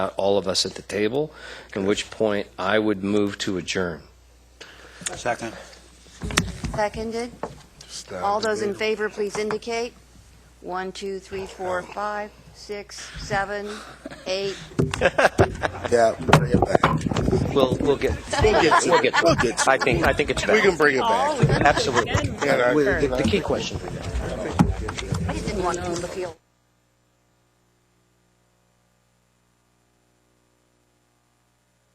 not uh, all of us at the table, at which point I would move to adjourn. Second. Seconded. All those in favor, please indicate. One, two, three, four, five, six, seven, eight. Yeah, bring it back. We'll, we'll get, We'll get we'll get, We'll get I think, I think it's We can back. bring it back. Absolutely. Yeah, I- The the key question. I just didn't want to move the field.